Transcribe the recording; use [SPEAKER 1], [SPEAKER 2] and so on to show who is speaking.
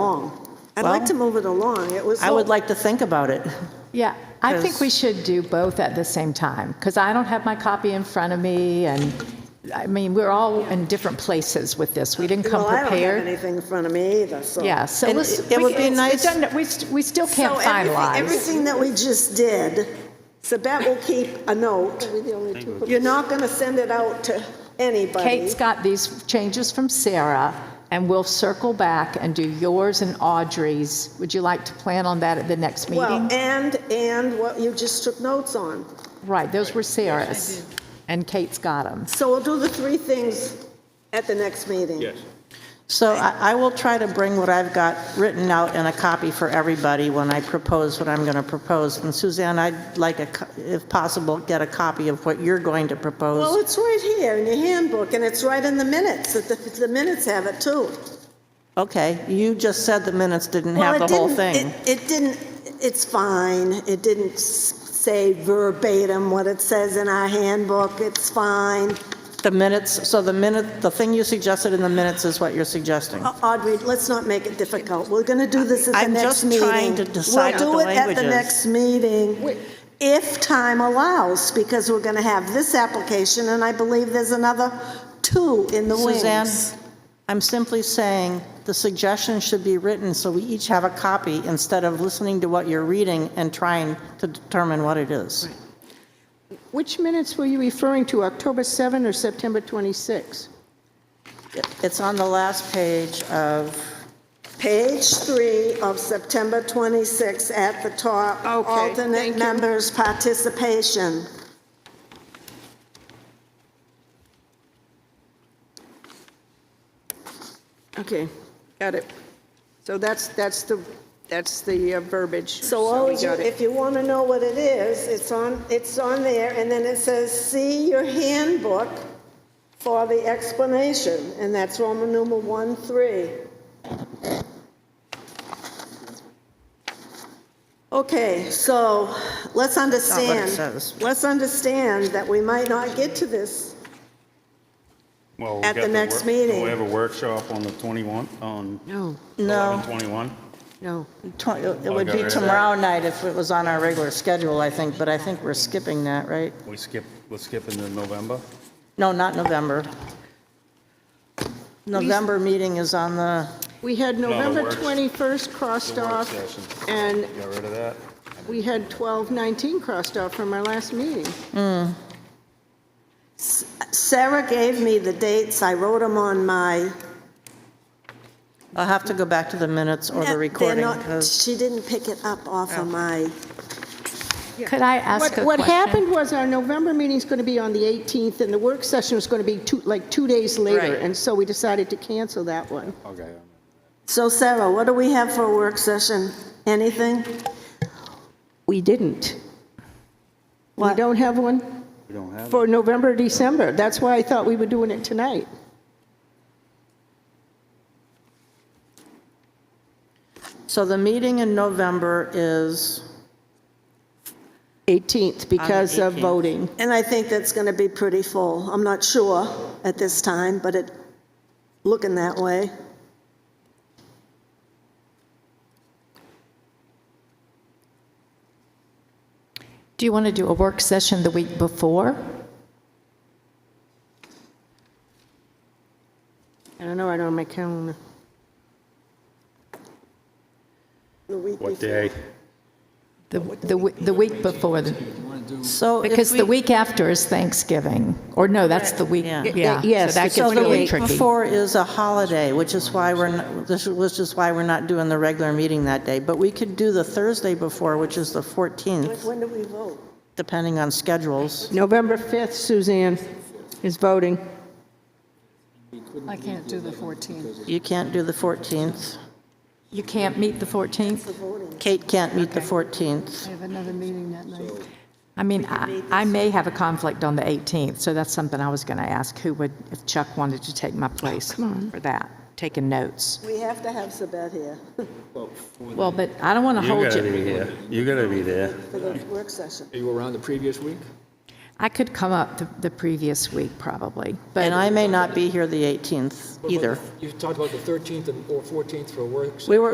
[SPEAKER 1] along.
[SPEAKER 2] I'd like
[SPEAKER 1] Well,
[SPEAKER 2] to move it along. It was.
[SPEAKER 1] I would like to think about it.
[SPEAKER 3] Yeah, I think we
[SPEAKER 1] Because-
[SPEAKER 3] should do both at the same time, because I don't have my copy in front of me, and, I mean, we're all in different places with this. We didn't come
[SPEAKER 2] Well, I don't have
[SPEAKER 3] prepared.
[SPEAKER 2] anything in front of me either, so.
[SPEAKER 3] Yeah, so
[SPEAKER 1] And
[SPEAKER 3] let's-
[SPEAKER 1] it
[SPEAKER 3] we-
[SPEAKER 1] would be
[SPEAKER 3] it's- it
[SPEAKER 1] nice-
[SPEAKER 3] doesn't- We st- we still
[SPEAKER 2] So
[SPEAKER 3] can't
[SPEAKER 2] everything-
[SPEAKER 3] finalize.
[SPEAKER 2] Everything that we just did, Sabette will keep a note. You're not going to send it out to anybody.
[SPEAKER 3] Kate's got these changes from Sarah, and we'll circle back and do yours and Audrey's. Would you like to plan on that at the next
[SPEAKER 2] Well,
[SPEAKER 3] meeting?
[SPEAKER 2] and, and what you just took notes on.
[SPEAKER 3] Right, those were Sarah's, and Kate's got them.
[SPEAKER 2] So we'll do the three things at the next meeting.
[SPEAKER 4] Yes.
[SPEAKER 1] So I I will try to bring what I've got written out in a copy for everybody when I propose what I'm going to propose. And Suzanne, I'd like, a co- if possible, get a copy of what you're going to
[SPEAKER 2] Well,
[SPEAKER 1] propose.
[SPEAKER 2] it's right here in your handbook, and it's right in the minutes, that the, the minutes have it too.
[SPEAKER 1] Okay, you just said the minutes didn't have
[SPEAKER 2] Well,
[SPEAKER 1] the
[SPEAKER 2] it
[SPEAKER 1] whole
[SPEAKER 2] didn't-
[SPEAKER 1] thing.
[SPEAKER 2] It it didn't, it's fine, it didn't s- say verbatim what it says in our handbook, it's fine.
[SPEAKER 1] The minutes, so the minute, the thing you suggested in the minutes is what you're suggesting.
[SPEAKER 2] Uh, Audrey, let's not make it difficult. We're going to do this at the
[SPEAKER 1] I'm
[SPEAKER 2] next
[SPEAKER 1] just
[SPEAKER 2] meeting.
[SPEAKER 1] trying to decide what
[SPEAKER 2] We'll
[SPEAKER 1] the
[SPEAKER 2] do it at the
[SPEAKER 1] language is.
[SPEAKER 2] next meeting, if time allows, because we're going to have this application, and I believe there's another two in the wings.
[SPEAKER 1] Suzanne, I'm simply saying the suggestion should be written so we each have a copy instead of listening to what you're reading and trying to determine what it is.
[SPEAKER 5] Which minutes were you referring to, October 7 or September 26?
[SPEAKER 1] It's on the last page of,
[SPEAKER 2] Page three of September 26 at the top.
[SPEAKER 5] Okay, thank
[SPEAKER 2] Alternate
[SPEAKER 5] you.
[SPEAKER 2] members' participation.
[SPEAKER 5] Okay, got it. So that's, that's the, that's the uh, verbiage.
[SPEAKER 2] So all
[SPEAKER 5] we
[SPEAKER 2] you,
[SPEAKER 5] got it.
[SPEAKER 2] if you want to know what it is, it's on, it's on there, and then it says, see your handbook for the explanation, and that's Roman numeral one, three. Okay, so let's
[SPEAKER 1] what it
[SPEAKER 2] understand.
[SPEAKER 1] says.
[SPEAKER 2] Let's understand that we might not get to this.
[SPEAKER 4] Well, we
[SPEAKER 2] At
[SPEAKER 4] got
[SPEAKER 2] the next
[SPEAKER 4] work-
[SPEAKER 2] meeting.
[SPEAKER 4] Do we have a workshop on the 21, on
[SPEAKER 5] No,
[SPEAKER 1] no,
[SPEAKER 4] 11/21?
[SPEAKER 5] no.
[SPEAKER 1] tw- it would
[SPEAKER 4] got
[SPEAKER 1] be
[SPEAKER 4] rid of that.
[SPEAKER 1] tomorrow night if it was on our regular schedule, I think, but I think we're skipping that, right?
[SPEAKER 4] We skip, we're skipping to November?
[SPEAKER 1] No, not November. November meeting is on the,
[SPEAKER 5] We had
[SPEAKER 4] the
[SPEAKER 5] November
[SPEAKER 4] works-
[SPEAKER 5] 21st crossed
[SPEAKER 4] the work
[SPEAKER 5] off,
[SPEAKER 4] session.
[SPEAKER 5] and
[SPEAKER 4] Got rid of that?
[SPEAKER 5] we had 1219 crossed off from our last meeting.
[SPEAKER 2] Sarah gave me the dates, I wrote them on my.
[SPEAKER 1] I'll have to go back to the minutes or the
[SPEAKER 2] They're
[SPEAKER 1] recording, Oh.
[SPEAKER 2] not-
[SPEAKER 1] 'cause-
[SPEAKER 2] She didn't pick it up off of my.
[SPEAKER 3] Could I ask a
[SPEAKER 5] What
[SPEAKER 3] question?
[SPEAKER 5] what happened was our November meeting's going to be on the 18th, and the work session was going to be two, like, two days later,
[SPEAKER 1] Right.
[SPEAKER 5] and so we decided to cancel that one.
[SPEAKER 4] Okay.
[SPEAKER 2] So Sarah, what do we have for a work session? Anything?
[SPEAKER 5] We didn't. We
[SPEAKER 2] What?
[SPEAKER 5] don't have one
[SPEAKER 4] We don't have, it.
[SPEAKER 5] for November, December. That's why I thought we were doing it tonight.
[SPEAKER 1] so the meeting in November is,
[SPEAKER 5] 18th because of
[SPEAKER 1] 18th.
[SPEAKER 5] voting.
[SPEAKER 2] And I think that's going to be pretty full. I'm not sure at this time, but it, looking that way.
[SPEAKER 3] Do you want to do a work session the week before?
[SPEAKER 5] I don't know, I don't have my calendar.
[SPEAKER 2] The week
[SPEAKER 4] what
[SPEAKER 2] before.
[SPEAKER 4] day?
[SPEAKER 3] The the we- the week before, the-
[SPEAKER 1] so if
[SPEAKER 3] because the
[SPEAKER 1] we-
[SPEAKER 3] week after is Thanksgiving, or no, that's the week,
[SPEAKER 1] Yeah.
[SPEAKER 3] yeah.
[SPEAKER 5] Yes,
[SPEAKER 3] So that
[SPEAKER 1] So
[SPEAKER 3] gets
[SPEAKER 1] the
[SPEAKER 3] really
[SPEAKER 1] week
[SPEAKER 3] tricky.
[SPEAKER 1] before is a holiday, which is why we're, not- this was just why we're not doing the regular meeting that day. But we could do the Thursday before, which is the 14th,
[SPEAKER 2] When do we vote?
[SPEAKER 1] depending on schedules.
[SPEAKER 5] November 5th, Suzanne is voting.
[SPEAKER 6] I can't do the 14th.
[SPEAKER 1] You can't do the 14th.
[SPEAKER 3] You can't meet the 14th?
[SPEAKER 1] Kate can't meet the 14th.
[SPEAKER 6] I have another meeting that night.
[SPEAKER 3] I mean, I I may have a conflict on the 18th, so that's something I was going to ask, who would, if Chuck wanted to take my place for that, taking notes.
[SPEAKER 2] We have to have Sabette here
[SPEAKER 3] Well, but I don't want to
[SPEAKER 4] You
[SPEAKER 3] hold
[SPEAKER 4] gotta
[SPEAKER 3] you.
[SPEAKER 4] be here, you gotta be there.
[SPEAKER 2] for the work session.
[SPEAKER 7] Are you around the previous week?
[SPEAKER 3] I could come up the, the previous week probably,
[SPEAKER 1] And
[SPEAKER 3] but
[SPEAKER 1] I may not be here the 18th either.
[SPEAKER 7] You've talked about the 13th and or 14th for a work session.
[SPEAKER 1] We were,